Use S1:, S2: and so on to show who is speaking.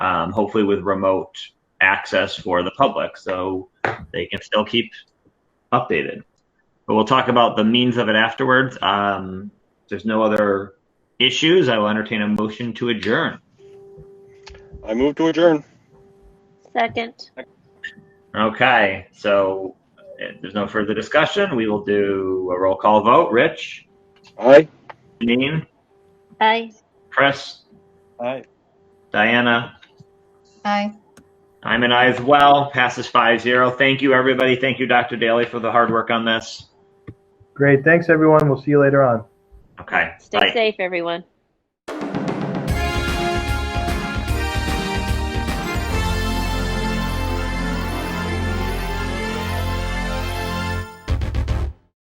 S1: um, hopefully with remote access for the public so they can still keep updated. But we'll talk about the means of it afterwards. Um, if there's no other issues. I will entertain a motion to adjourn.
S2: I move to adjourn.
S3: Second.
S1: Okay, so if there's no further discussion, we will do a roll call vote. Rich,
S2: Aye.
S1: Janine,
S3: Aye.
S1: Chris,
S2: Aye.
S1: Diana,
S4: Aye.
S1: I'm an I as well. Passes 5 0. Thank you, everybody. Thank you, Dr. Daly, for the hard work on this.
S5: Great. Thanks, everyone. We'll see you later on.
S1: Okay.
S3: Stay
S1: bye.
S3: safe, everyone.